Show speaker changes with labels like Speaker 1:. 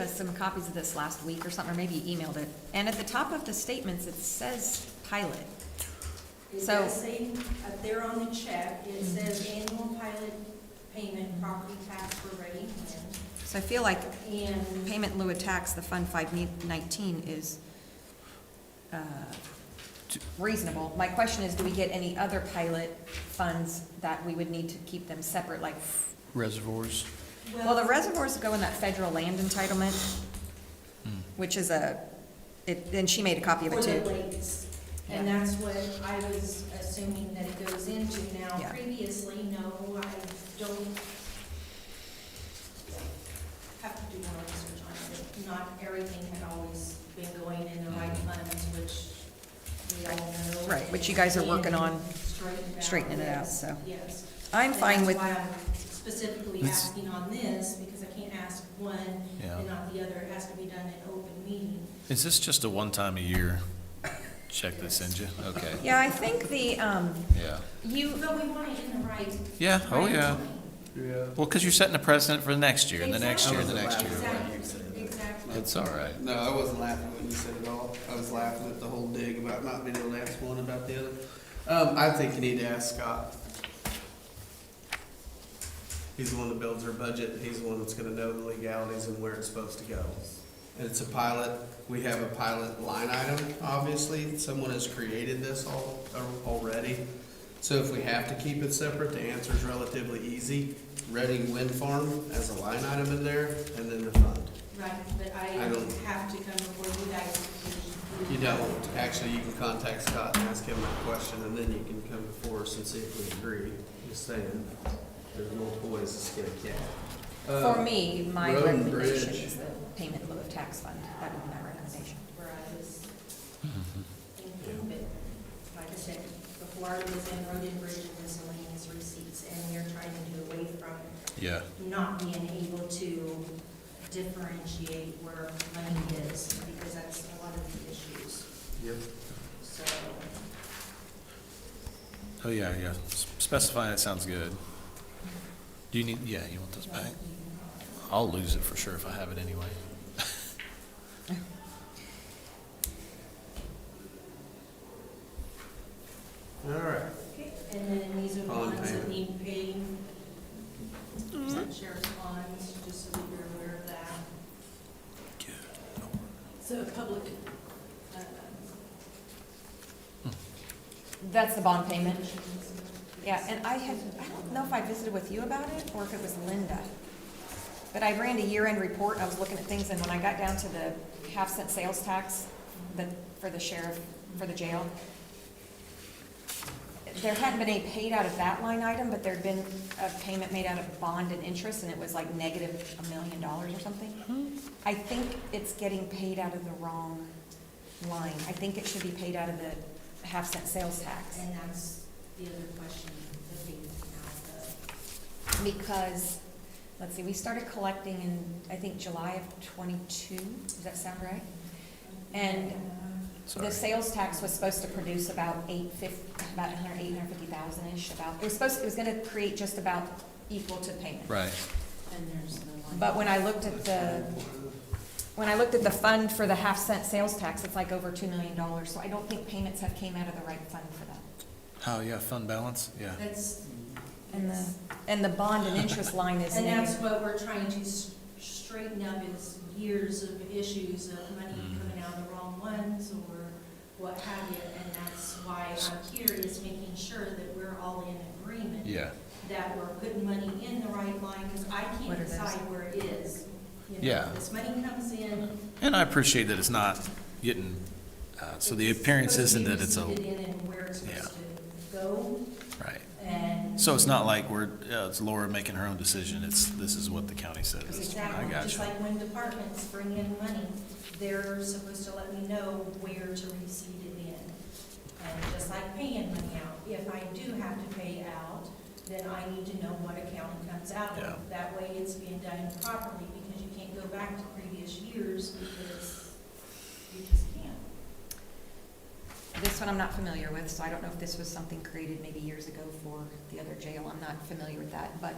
Speaker 1: us some copies of this last week or something, or maybe you emailed it. And at the top of the statements, it says pilot.
Speaker 2: It
Speaker 1: So- Mm-hmm.
Speaker 2: does say, up there on the check, it says annual pilot payment property tax for ready Hand.
Speaker 1: So I feel like
Speaker 2: And
Speaker 1: payment in lieu of tax, the Fund 519 is uh, reasonable. My question is, do we get any other pilot funds that we would need to keep them separate, like,
Speaker 3: reservoirs.
Speaker 1: well, the reservoirs go in that federal land entitlement,
Speaker 3: Hmm.
Speaker 1: which is a, it- and she made a copy of
Speaker 2: For
Speaker 1: it
Speaker 2: the
Speaker 1: too.
Speaker 2: lakes. And that's what I was assuming that it goes into. Now,
Speaker 1: Yeah.
Speaker 2: previously, no, I don't have to do more research on it. but Not everything had always been going in the right funds, which we all know.
Speaker 1: Mm-hmm. Right, which you guys are working on
Speaker 2: And straightened out,
Speaker 1: straightening it out,
Speaker 2: yes,
Speaker 1: so.
Speaker 2: Yes.
Speaker 1: I'm
Speaker 2: And
Speaker 1: fine
Speaker 2: that's
Speaker 1: with,
Speaker 2: why I'm Specifically
Speaker 3: Let's-
Speaker 2: asking on this, because I can't ask one
Speaker 4: Yeah.
Speaker 2: and not the other. It has to be done in open meeting.
Speaker 4: Is this just a one time a year check they send you? Okay,
Speaker 1: yeah, I think the, um,
Speaker 4: yeah.
Speaker 1: you,
Speaker 2: But we want it in the right.
Speaker 4: Yeah, oh
Speaker 2: right
Speaker 4: yeah.
Speaker 2: time.
Speaker 5: Yeah.
Speaker 4: Well, because you're setting a precedent for the next year, and the next year, and the next
Speaker 2: Exactly.
Speaker 4: year.
Speaker 2: Exactly, exactly.
Speaker 4: It's all right.
Speaker 5: No, I wasn't laughing when you said it all. I was laughing at the whole dig about not being able to ask one about the other. Um, I think you need to ask Scott. He's the one that builds our budget, and he's the one that's gonna know the legalities and where it's supposed to go. And it's a pilot, we have a pilot line item, obviously, someone has created this all, uh, already. So if we have to keep it separate, the answer is relatively easy. Reading Wind Farm as a line item in there, and then the fund.
Speaker 2: Right, but I
Speaker 5: I don't-
Speaker 2: have to come before you guys. because
Speaker 5: You don't, actually, you can contact Scott and ask him that question, and then you can come before us and see if we agree. Just saying, there's multiple ways to skin a cat. Uh,
Speaker 1: for me, my
Speaker 5: Road and
Speaker 1: recommendation
Speaker 5: bridge.
Speaker 1: is the payment in lieu of tax fund. That would be my recommendation.
Speaker 2: Where I was
Speaker 4: Mm-hmm.
Speaker 2: thinking, but like I said, before I was in road and bridge and miscellaneous receipts, and we are trying to do away from
Speaker 4: Yeah.
Speaker 2: not being able to differentiate where money is, because that's a lot of the issues,
Speaker 5: Yep.
Speaker 2: so.
Speaker 4: Oh, yeah, yeah. S- Specify it sounds good. Do you need, yeah, you want this back? I'll lose it for sure if I have it anyway.
Speaker 5: All right,
Speaker 2: Okay, And then these are the
Speaker 5: All in
Speaker 2: ones that
Speaker 5: favor?
Speaker 2: need paying, sheriff's bonds, just so that you're aware of that.
Speaker 6: So public, uh,
Speaker 1: That's the bond payment? Yeah, and I had, I don't know if I visited with you about it or if it was Linda. But I ran a year-end report, I was looking at things, and when I got down to the half-cent sales tax, the, for the sheriff, for the jail, there hadn't been any paid out of that line item, but there'd been a payment made out of bond and interest, and it was like negative a million dollars or something. I think it's getting paid out of the wrong line. I think it should be paid out of the half-cent sales tax.
Speaker 2: And that's the other question, the payment now,
Speaker 1: because, let's see, we started collecting in, I think, July of twenty-two, does that sound right? And
Speaker 4: Sorry.
Speaker 1: the sales tax was supposed to produce about eight fifty, about a hundred, eight hundred fifty thousand-ish, about, it was supposed, it was gonna create just about equal to payment.
Speaker 4: Right.
Speaker 6: and there's the one.
Speaker 1: But when I looked at the, when I looked at the fund for the half cent sales tax, it's like over two million dollars, so I don't think payments have came out of the right fund for that.
Speaker 4: Oh, yeah, fund balance, yeah.
Speaker 2: the, that's,
Speaker 1: And the, and the bond and interest line is
Speaker 2: and that's
Speaker 1: negative.
Speaker 2: what we're trying to s- straighten up is years of issues of money
Speaker 4: Mm-hmm.
Speaker 2: coming out of the wrong ones or what have you, and that's why I'm here is making sure that we're all in agreement.
Speaker 4: Yeah.
Speaker 2: that we're putting money in the right line, because I
Speaker 1: What
Speaker 2: can't
Speaker 1: are those?
Speaker 2: decide where it is. You know,
Speaker 4: Yeah.
Speaker 2: This money comes in.
Speaker 4: And I appreciate that it's not getting, uh, so the appearance
Speaker 2: supposed to
Speaker 4: isn't
Speaker 2: be
Speaker 4: that it's a,
Speaker 2: received in and where it's
Speaker 4: Yeah.
Speaker 2: supposed to go,
Speaker 4: right.
Speaker 2: and.
Speaker 4: So it's not like we're, uh, it's Laura making her own decision, it's, this is what the county says. I
Speaker 2: Exactly,
Speaker 4: got
Speaker 2: just
Speaker 4: you.
Speaker 2: like when departments bring in money, they're supposed to let me know where to receive it in. And just like paying money out, if I do have to pay out, then I need to know what account it comes out
Speaker 4: Yeah.
Speaker 2: of. That way it's being done properly, because you can't go back to previous years, because you just can't.
Speaker 1: This one I'm not familiar with, so I don't know if this was something created maybe years ago for the other jail. I'm not familiar with that, but